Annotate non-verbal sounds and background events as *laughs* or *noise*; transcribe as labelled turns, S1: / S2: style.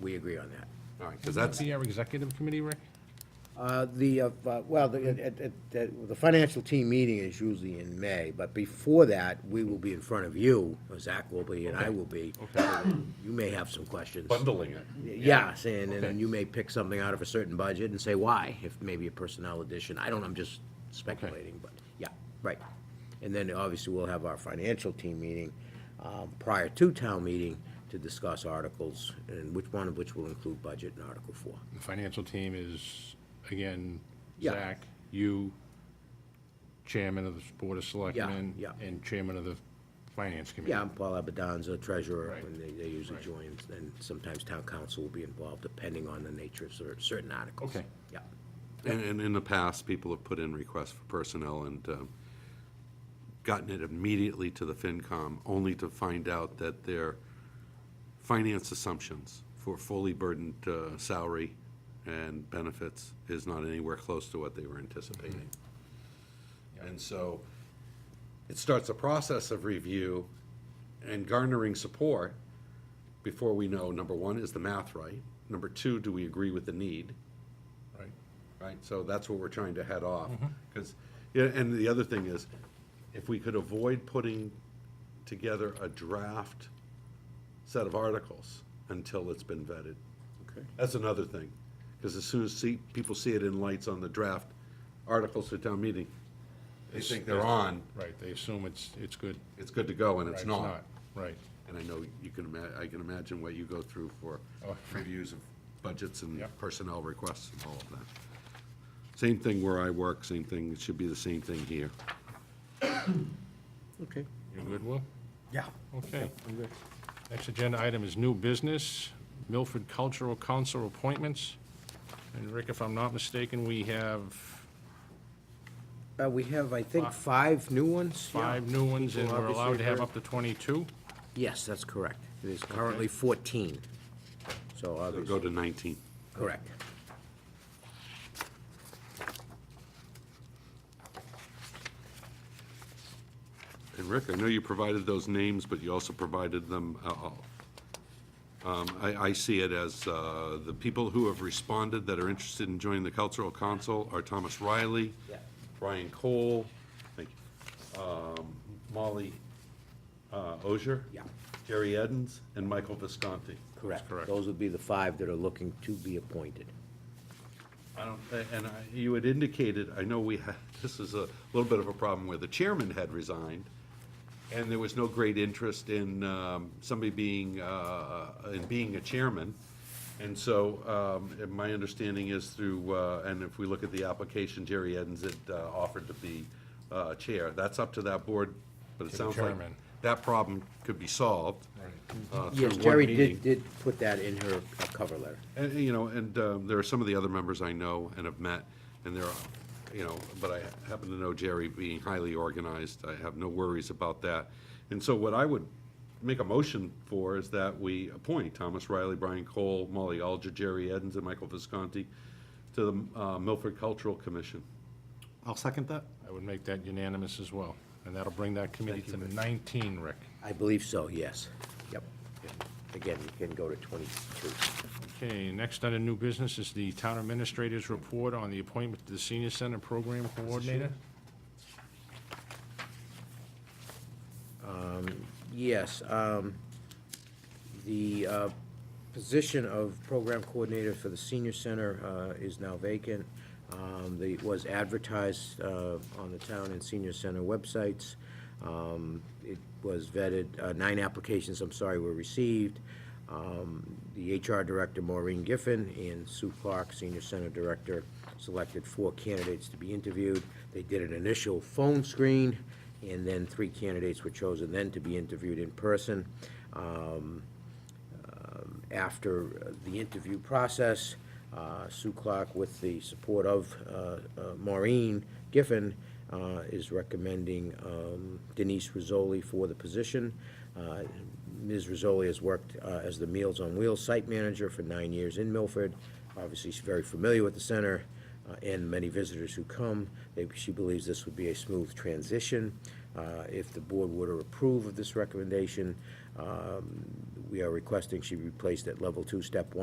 S1: we agree on that.
S2: All right, because that's,
S3: Be our executive committee, Rick?
S1: Uh, The, uh, uh, well, the, it- it- it- the financial team meeting is usually in May, but before that, we will be in front of you, or Zach will be, and I will be. You may have some questions.
S2: bundling it.
S1: Yes, and, and then
S3: Okay.
S1: you may pick something out of a certain budget and say why, if maybe a personnel addition, I don't, know, I'm just speculating, but, yeah, right. And then obviously we'll have our financial team meeting, um, prior to town meeting to discuss articles, and which one of which will include budget in Article Four.
S3: The financial team is, again,
S1: Yeah.
S3: Zach, you, chairman of the Board of Selectmen.
S1: yeah.
S3: And chairman of the Finance Committee.
S1: Yeah, I'm Paul Abadanza, treasurer,
S3: Right.
S1: and they, they usually join, and sometimes town council will be involved, depending on the nature of cer- certain articles.
S3: Okay.
S1: Yeah,
S2: And, and in the past, people have put in requests for personnel and um, gotten it immediately to the FinCom, only to find out that their finance assumptions for fully burdened uh, salary and benefits is not anywhere close to what they were anticipating. And so it starts a process of review and garnering support before we know, number one, is the math right? Number two, do we agree with the need?
S3: Right.
S2: right? So that's what we're trying to head off, because, yeah, and the other thing is, if we could avoid putting together a draft set of articles until it's been vetted. Okay. That's another thing, because as soon as see, people see it in lights on the draft articles at town meeting, they think they're on,
S3: Right, they assume it's, it's good.
S2: it's good to go, and
S3: Right,
S2: it's not.
S3: Right.
S2: And I know you can ima, I can imagine what you go through for
S3: Oh.
S2: reviews of budgets and
S3: Yeah.
S2: personnel requests and all of that. Same thing where I work, same thing, it should be the same thing here.
S1: okay.
S3: You good, Will?
S1: Yeah.
S3: Okay. Next agenda item is new business, Milford Cultural Council appointments. And Rick, if I'm not mistaken, we have
S1: Uh, we have, I think, five new ones? yeah.
S3: five new ones, and
S1: People
S3: we're allowed to have
S1: obviously
S3: up to 22.
S1: Yes, that's correct. It is currently fourteen, so
S2: So Go
S1: obviously,
S2: to nineteen.
S1: correct.
S2: And Rick, I know you provided those names, but you also provided them, uh, uh, um, I, I see it as, uh, the people who have responded that are interested in joining the cultural council are Thomas Riley.
S1: Yeah.
S2: Brian Cole, thank you, um, Molly, uh, Ozier.
S1: Yeah.
S2: Jerry Edens, and Michael Visconti.
S1: Correct.
S3: correct.
S1: Those would be the five that are looking to be appointed.
S2: I don't, thi- and I- you had indicated, I know we had, *laughs* this is a little bit of a problem where the chairman had resigned, and there was no great interest in um, somebody being, uh, in being a chairman. And so, um, and my understanding is through, uh, and if we look at the application, Jerry Edens had uh, offered to be uh, chair. That's up to that board, but it
S3: the
S2: sounds like
S3: chairman.
S2: that problem could be solved. uh, through
S1: Yes,
S2: one
S1: Jerry
S2: meeting.
S1: did, did put that in her uh, cover letter.
S2: And, you know, and um, there are some of the other members I know and have met, and there are, you know, but I happen to know Jerry being highly organized. I have no worries about that. And so what I would make a motion for is that we appoint Thomas Riley, Brian Cole, Molly Alger, Jerry Edens, and Michael Visconti to the uh, Milford Cultural Commission.
S4: I'll second that.
S3: I would make that unanimous as well. And that'll bring that committee to 19, Rick.
S1: I believe so, yes. Yep. Again, you can go to twenty-two.
S3: Okay, next under new business is the town administrator's report on the appointment to the senior center program coordinator.
S1: Yes, um, the, uh, position of program coordinator for the senior center, uh, is now vacant. Um, the, was advertised, uh, on the town and senior center websites. Um, it was vetted, uh, nine applications, I'm sorry, were received. Um, the HR director, Maureen Giffen, and Sue Clark, senior center director, selected four candidates to be interviewed. They did an initial phone screen, and then three candidates were chosen then to be interviewed in person. Um, um, After uh, the interview process, uh, Sue Clark, with the support of uh, uh, Maureen Giffen, uh, is recommending um, Denise Rizzoli for the position. Uh, Ms. Rizzoli has worked uh, as the Meals on Wheels site manager for nine years in Milford. Obviously, she's very familiar with the center uh, and many visitors who come. They- She believes this would be a smooth transition. Uh, If the board were to approve of this recommendation, um, we are requesting she be placed at level two, step one.